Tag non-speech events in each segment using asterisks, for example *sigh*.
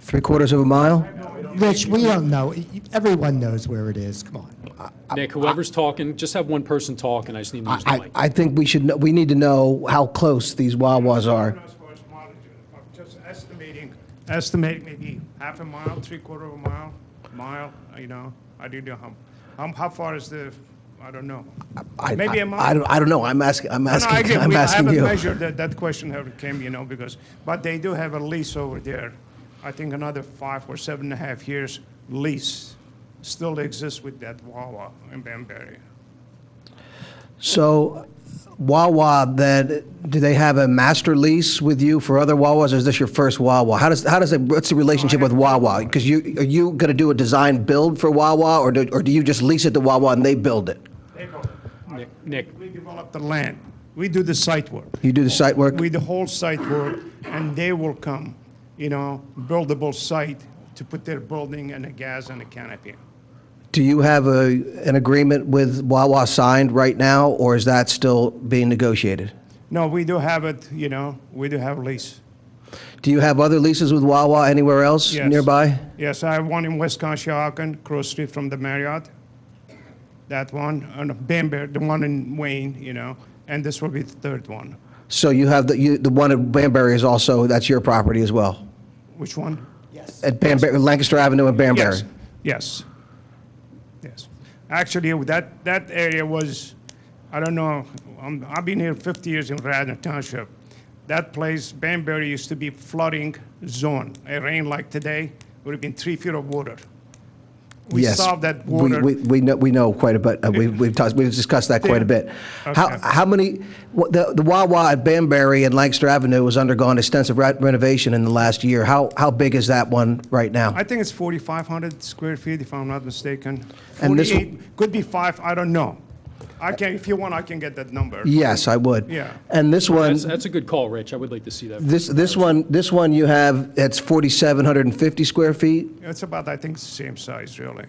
Three quarters of a mile? Rich, we don't know. Everyone knows where it is. Come on. Nick, whoever's talking, just have one person talk, and I just need to use the I, mic. I think we should, kn- we need to know how close these Wawas are. As far as mileage, I'm Just estimating, estimating maybe half a mile, three quarter of a mile, mile, you know, I do know how, how, how far is the, I don't know. I- Maybe a I- mile? I don't, I don't know, I'm asking, I'm No, no, I asking, get- I'm we- asking I haven't you. measured that, that question ever came, you know, because, but they do have a lease over there. I think another five or seven and a half years lease still exists with that Wawa in Banbury. So Wawa, then, do they have a master lease with you for other Wawas, or is this your first Wawa? How does, how does, it? what's the relationship with Wawa? Because you, are you going to do a design build for Wawa, or do, or do you just lease it to Wawa and they build it? They go, Nick- Nick, we develop the land, we do the site work. You do the site work? with the whole site work, and they will come, you know, buildable site to put their building and a gas and a canopy. Do you have a, an agreement with Wawa signed right now, or is that still being negotiated? No, we do have it, you know, we do have lease. Do you have other leases with Wawa anywhere else Yes. nearby? Yes, I have one in West Conshohocken, cross street from the Marriott. That one, and Bamber, the one in Wayne, you know, and this will be the third one. So you have the, you, the one at Banbury is also, that's your property as well? Which one? At Banbury, Lancaster Avenue in Banbury? Yes, yes, yes. Actually, that, that area was, I don't know, um, I've been here 50 years in Radnor Township. That place, Banbury, used to be flooding zone. It rained like today, would have been three feet of water. We Yes. solved that We- water. We, we know, we know quite a bit, uh, we've, we've talked, we've discussed that quite a bit. How, Okay. how many, what- the, the Wawa at Banbury and Lancaster Avenue has undergone extensive re- renovation in the last year. How, how big is that one right now? I think it's 4,500 square feet, if I'm not mistaken. And this- 48, could be five, I don't know. I can, if you want, I can get that number. Yes, I would. Yeah. And this one, that's, that's a good call, Rich. I would like to see that. this, this one, this one you have, it's 4,750 square feet? It's about, I think, the same size, really.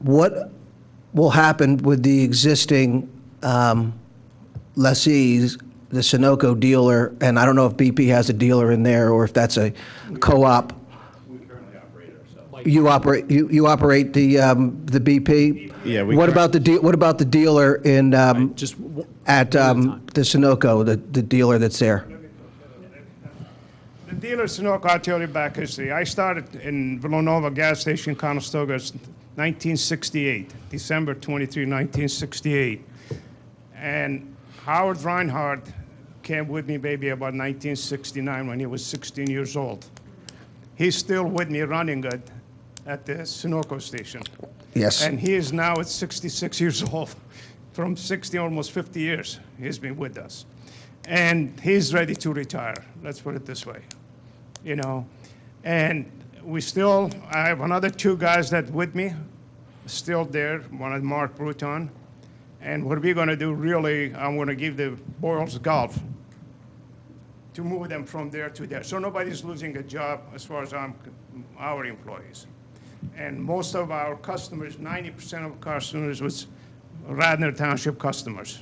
What will happen with the existing um, lessees, the Sunoco dealer, and I don't know if BP has a dealer in there or if that's a co-op? You operate, you, you operate the, um, the BP? Yeah, we What cur- about the, de- what about the dealer in, um, Just, w- at um, the Sunoco, the, the dealer that's there? The dealer Sunoco, I'll tell you back history. I started in Villanova gas station, Conestoga, it's 1968, December 23, 1968. And Howard Reinhardt came with me, maybe about 1969 when he was 16 years old. He's still with me running it at the Sunoco station. Yes. And he is now at 66 years *laughs* old, from 60, almost 50 years, he's been with us. And he's ready to retire, let's put it this way, you know? And we still, I have another two guys that with me, still there, one is Mark Bruton. And what we're gonna do really, I'm gonna give the Boyles Golf to move them from there to there. So nobody's losing a job as far as I'm, our employees. And most of our customers, 90% of customers was Radnor Township customers,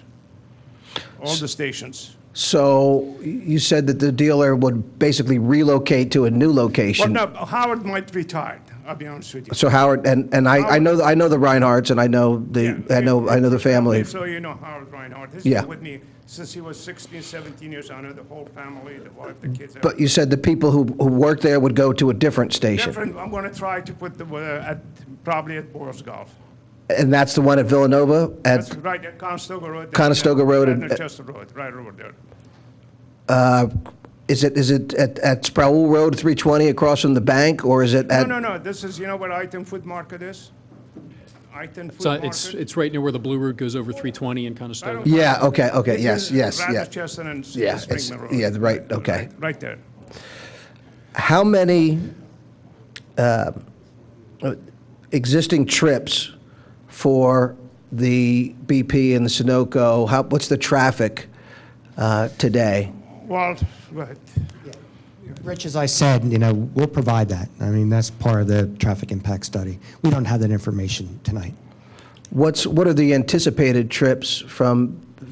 all the stations. So you said that the dealer would basically relocate to a new Well, location? no, Howard might retire, I'll be honest with you. So Howard, and, and I, I know, I know the Reinhardts, and I know the, I know, I know the family. So you know Howard Reinhardt. He's Yeah. been with me since he was 16, 17 years. I know the whole family, the wife, the kids. But you said the people who, who work there would go to a different station? Different, I'm gonna try to put the, uh, at, probably at Boyle's Golf. And that's the one at Villanova? That's At, right, at Conestoga Road. Conestoga Road and- Radnor Chester Road, right over there. is it, is it at, at Sproul Road, 320, across from the bank, or is it No, at? no, no, this is, you know what Iton Food Market is? Iton Food so it's, Market. it's right near where the Blue Route goes over 320 and kind of stuff. Yeah, okay, okay, This yes, is yes, yeah. Radnor Chester and S- Yeah, it's- Springman Road. yeah, right, okay. Right- Right there. How many um, uh, existing trips for the BP and the Sunoco? How, what's the traffic uh, today? Well, right, Rich, as I said, you know, we'll provide that. I mean, that's part of the traffic impact study. We don't have that information tonight. What's, what are the anticipated trips from